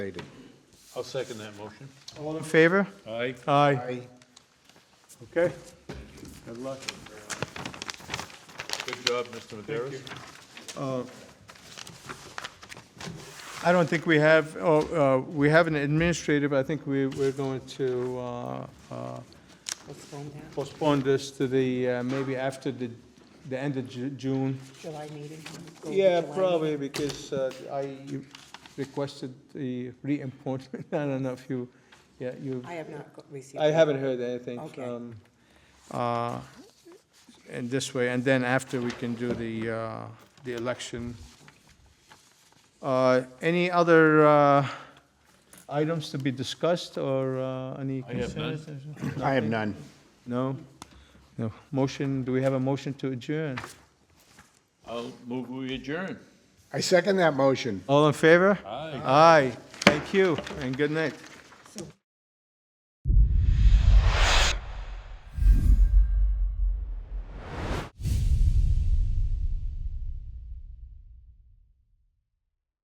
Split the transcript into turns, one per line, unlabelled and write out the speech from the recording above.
Stated.
I'll second that motion.
All in favor?
Aye.
Aye. Okay. Good luck.
Good job, Mr. Maderos.
I don't think we have, oh, uh, we have an administrative, I think we, we're going to, uh, uh,
postpone that,
postpone this to the, uh, maybe after the, the end of Ju- June.
July meeting? go with
Yeah,
July
probably, because uh, I requested the reappointment, I don't know if you, yeah, you,
meeting? I have not go- received.
I
that.
haven't heard anything um,
Okay.
from, uh, in this way, and then after we can do the, uh, the election. Uh, Any other uh, items to be discussed, or uh, any
I have none.
concerns?
I have none.
No? No. Motion, do we have a motion to adjourn?
I'll move we adjourn.
I second that motion.
All in favor?
Aye.
Aye, thank you, and good night.